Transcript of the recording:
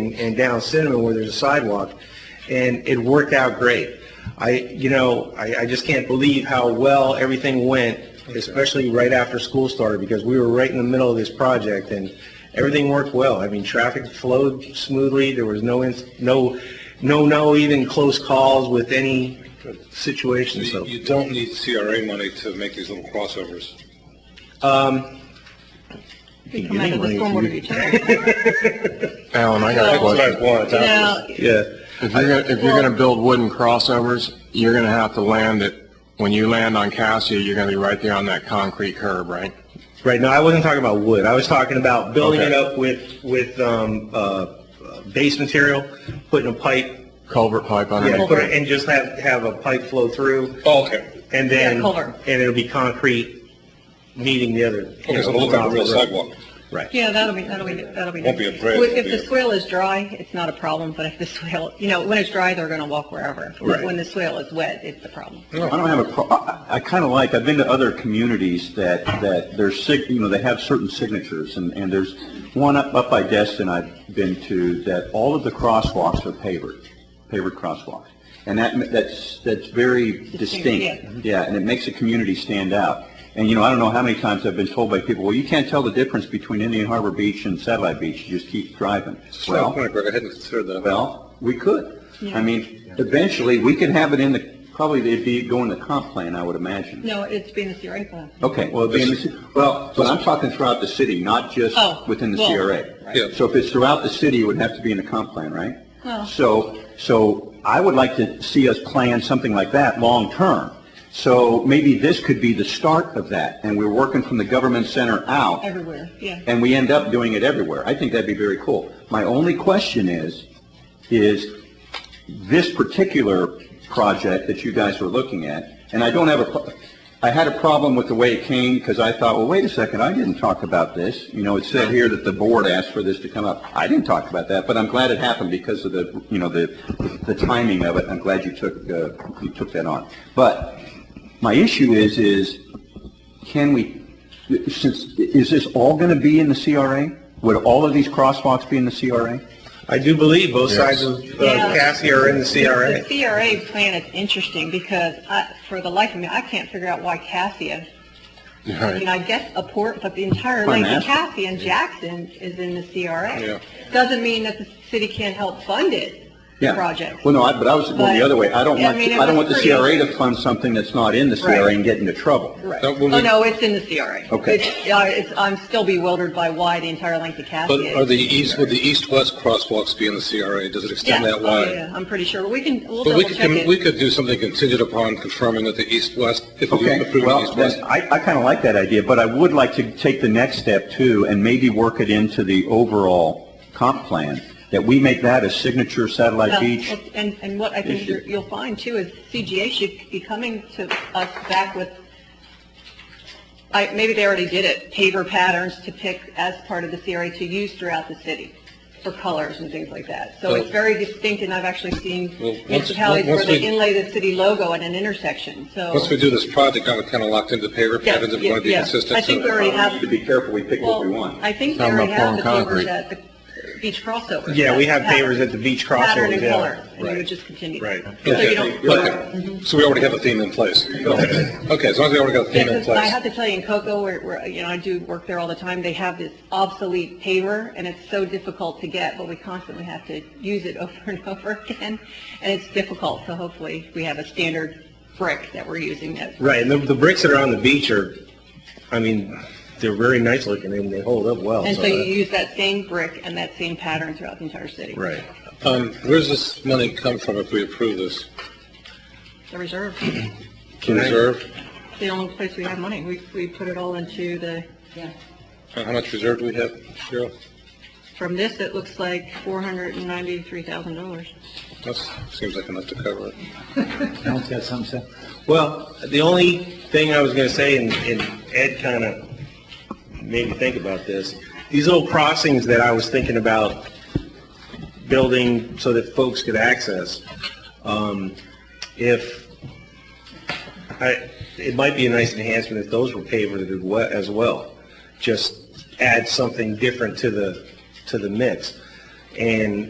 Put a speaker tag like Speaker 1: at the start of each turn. Speaker 1: and, and down Cinnamon where there's a sidewalk. And it worked out great. I, you know, I, I just can't believe how well everything went, especially right after school started, because we were right in the middle of this project and everything worked well. I mean, traffic flowed smoothly. There was no, ins- no, no, no even close calls with any situation, so.
Speaker 2: You don't need CRA money to make these little crossovers.
Speaker 3: We come out of the stormwater utility.
Speaker 4: Alan, I got a question.
Speaker 2: want.
Speaker 3: Now,
Speaker 1: Yeah.
Speaker 4: If you're gonna, if you're gonna build wooden crossovers, you're gonna have to land it, when you land on Cassia, you're gonna be right there on that concrete curb, right?
Speaker 1: Right, no, I wasn't talking about wood. I was talking about building it
Speaker 4: Okay.
Speaker 1: up with, with, um, uh, uh, base material, putting a pipe,
Speaker 4: Culvert pipe
Speaker 1: yeah,
Speaker 4: underneath.
Speaker 1: put it- and just have, have a pipe flow through,
Speaker 2: Oh, okay.
Speaker 1: and then,
Speaker 3: Yeah, culvert.
Speaker 1: and it'll be concrete meeting the other.
Speaker 2: Okay, so it'll look like a real sidewalk.
Speaker 1: Right.
Speaker 3: yeah, that'll be, that'll be, that'll be.
Speaker 2: Won't be a bridge,
Speaker 3: Well, If
Speaker 2: it'll be
Speaker 3: the
Speaker 2: a-
Speaker 3: swale is dry, it's not a problem, but if the swale, you know, when it's dry, they're going to walk wherever.
Speaker 1: Right.
Speaker 3: When the swale is wet, it's the problem.
Speaker 2: Mm-hmm.
Speaker 5: I don't have a, pro- I, I kind of like, I've been to other communities that, that there's sig, you know, they have certain signatures, and, and there's one up, up by Destin I've been to, that all of the crosswalks are pavered, pavered crosswalks. And that, that's, that's very distinct. Mm-hmm. Yeah, and it makes a community stand out. And, you know, I don't know how many times I've been told by people, well, you can't tell the difference between Indian Harbor Beach and Satellite Beach, you just keep driving. Well,
Speaker 2: Greg, I hadn't considered that.
Speaker 5: well, we could.
Speaker 3: Yeah.
Speaker 5: I mean, eventually, we could have it in the, probably it'd be going to comp plan, I would imagine.
Speaker 3: No, it's being the CRA plan.
Speaker 5: Okay, well, it'd be in the ci- well, but I'm talking throughout the city, not just
Speaker 3: Oh,
Speaker 5: within the
Speaker 3: well,
Speaker 5: CRA.
Speaker 3: right.
Speaker 2: Yeah.
Speaker 5: So if it's throughout the city, it would have to be in the comp plan, right?
Speaker 3: Well-
Speaker 5: So, so I would like to see us plan something like that long-term. So maybe this could be the start of that, and we're working from the government center out
Speaker 3: Everywhere, yeah.
Speaker 5: and we end up doing it everywhere. I think that'd be very cool. My only question is, is this particular project that you guys were looking at, and I don't have a, pro- I had a problem with the way it came because I thought, well, wait a second, I didn't talk about this. You know, it said here that the board asked for this to come up. I didn't talk about that, but I'm glad it happened because of the, you know, the, the timing of it. I'm glad you took, uh, you took that on. But my issue is, is can we, since, is this all going to be in the CRA? Would all of these crosswalks be in the CRA?
Speaker 1: I do believe both sides of uh,
Speaker 3: Yeah.
Speaker 1: Cassia are in the CRA.
Speaker 3: The CRA plan is interesting because I, for the life of me, I can't figure out why Cassia, I mean,
Speaker 4: Right.
Speaker 3: I guess a port, but the entire
Speaker 5: Fine,
Speaker 3: length of
Speaker 5: that's-
Speaker 3: Cassia and Jackson is in the
Speaker 2: Yeah.
Speaker 3: CRA. Doesn't mean that the city can't help fund it,
Speaker 5: Yeah.
Speaker 3: projects.
Speaker 5: Well, no, I, but I was going the
Speaker 3: But-
Speaker 5: other way. I don't
Speaker 3: Yeah, I
Speaker 5: want,
Speaker 3: mean, it
Speaker 5: I don't want
Speaker 3: was
Speaker 5: the CRA
Speaker 3: pretty-
Speaker 5: to fund something that's not in the CRA
Speaker 3: Right.
Speaker 5: and get into trouble.
Speaker 3: Right.
Speaker 2: Now, will
Speaker 3: Oh,
Speaker 2: we-
Speaker 3: no, it's in the CRA.
Speaker 5: Okay.
Speaker 3: It's- yeah, it's, I'm still bewildered by why the entire length of Cassia
Speaker 2: But
Speaker 3: is.
Speaker 2: are the east, would the east-west crosswalks be in the CRA? Does it
Speaker 3: Yeah.
Speaker 2: extend that
Speaker 3: Oh,
Speaker 2: wide?
Speaker 3: yeah, I'm pretty sure. We can, we'll
Speaker 2: But
Speaker 3: double
Speaker 2: we could,
Speaker 3: check it.
Speaker 2: we could do something contingent upon confirming that the east-west, if we
Speaker 5: Okay,
Speaker 2: approve the
Speaker 5: well,
Speaker 2: east-west.
Speaker 5: then, I, I kind of like that idea, but I would like to take the next step too and maybe work it into the overall comp plan, that we make that a signature satellite
Speaker 3: Well,
Speaker 5: beach.
Speaker 3: Um, And, and what I think
Speaker 5: issue.
Speaker 3: you're- you'll find too is CGA should be coming to us back with, I, maybe they already did it, paver patterns to pick as part of the CRA to use throughout the city for colors and things like that. So it's very distinct and I've actually seen
Speaker 2: Well, once-
Speaker 3: municipalities where
Speaker 2: once
Speaker 3: they
Speaker 2: we-
Speaker 3: inlay the city logo at an intersection, so.
Speaker 2: Once we do this project, I'm kind of locked into paver
Speaker 3: Yeah,
Speaker 2: patterns if we
Speaker 3: yeah,
Speaker 2: want to be
Speaker 3: yeah.
Speaker 2: consistent.
Speaker 3: I think
Speaker 2: so-
Speaker 3: we already have.
Speaker 5: To be careful, we pick what we want.
Speaker 3: Well, I think they
Speaker 4: Talking
Speaker 3: already
Speaker 4: about
Speaker 3: have the
Speaker 4: pouring
Speaker 3: pavers
Speaker 4: concrete.
Speaker 3: at the beach crossovers.
Speaker 1: Yeah, we have
Speaker 3: Pattern-
Speaker 1: pavers at the beach
Speaker 3: Pattern
Speaker 1: crossovers,
Speaker 3: and
Speaker 1: yeah.
Speaker 3: color, and you
Speaker 1: Right.
Speaker 3: would just continue.
Speaker 1: Right.
Speaker 3: So you
Speaker 2: Okay,
Speaker 3: don't,
Speaker 2: but- so we already have a theme in place. Okay, as long as we already got a
Speaker 3: Yeah,
Speaker 2: theme in
Speaker 3: 'cause I
Speaker 2: place.
Speaker 3: have to tell you, in Cocoa, where, where, you know, I do work there all the time, they have this obsolete paver, and it's so difficult to get, but we constantly have to use it over and over again, and it's difficult, so hopefully we have a standard brick that we're using that.
Speaker 1: Right, and the, the bricks that are on the beach are, I mean, they're very nice looking and they hold up well.
Speaker 3: And so you
Speaker 1: that-
Speaker 3: use that same brick and that same pattern throughout the entire city.
Speaker 1: Right.
Speaker 2: Um, where's this money come from if we approve this?
Speaker 3: The reserve,
Speaker 2: Reserve?
Speaker 3: the only place we have money, we, we put it all into the,
Speaker 2: Uh, How much reserve do we have, Cheryl?
Speaker 3: from this, it looks like four hundred and ninety-three thousand dollars.
Speaker 2: That seems like enough to cover it.
Speaker 6: Alan's got something to say.
Speaker 1: Well, the only thing I was going to say, and and Ed kind of made me think about this, these little crossings that I was thinking about building so that folks could access, um, if, I, it might be a nice enhancement if those were pavered as we- as well. Just add something different to the, to the mix. And